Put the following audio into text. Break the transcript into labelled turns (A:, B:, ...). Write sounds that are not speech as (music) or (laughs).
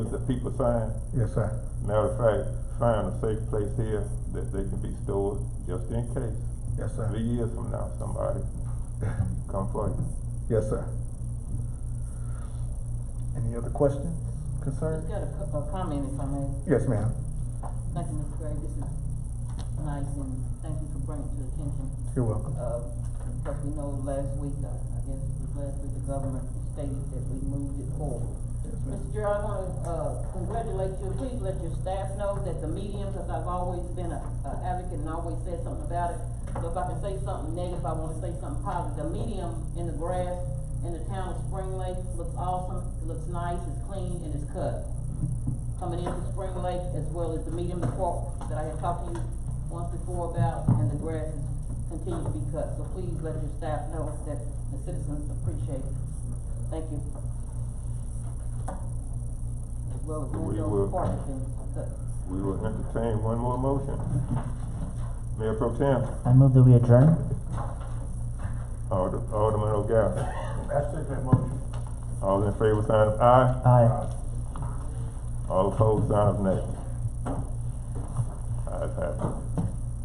A: The people sign,
B: Yes, sir.
A: matter of fact, find a safe place here that they can be stored, just in case.
B: Yes,
A: Three
B: sir.
A: years from now, somebody come for you.
B: (laughs) Yes, sir. Any other questions, concerns?
C: Just got a, co- a comment if I may.
B: Yes, ma'am.
C: Thank you, Mr. Gray, this is nice and thank you for bringing it to attention.
B: You're welcome.
C: Uh, because we know last week, uh, I guess it was last week, the government stated that we moved it forward.
B: Yes, ma'am.
C: Mr. Gerald, I wanna, uh, congratulate you, please let your staff know that the medium, cause I've always been a, a advocate and always said something about it. So if I can say something negative, I wanna say something positive, the medium in the grass in the town of Spring Lake looks awesome, it looks nice, it's clean, and it's cut. Coming into Spring Lake, as well as the medium, the park that I had talked to you once before about, and the grass is continuing to be cut, so please let your staff know that the citizens appreciate it. Thank you as well as
A: We
C: windows
A: will.
C: and parking things cut.
A: We will entertain one more motion. Mayor Pro Tem,
D: I move that we adjourn.
A: Ald- Alderman O'Gara,
E: I second that motion.
A: all in favor, sign of aye.
D: Aye.
A: All opposed, sign of nay. Ayes have it.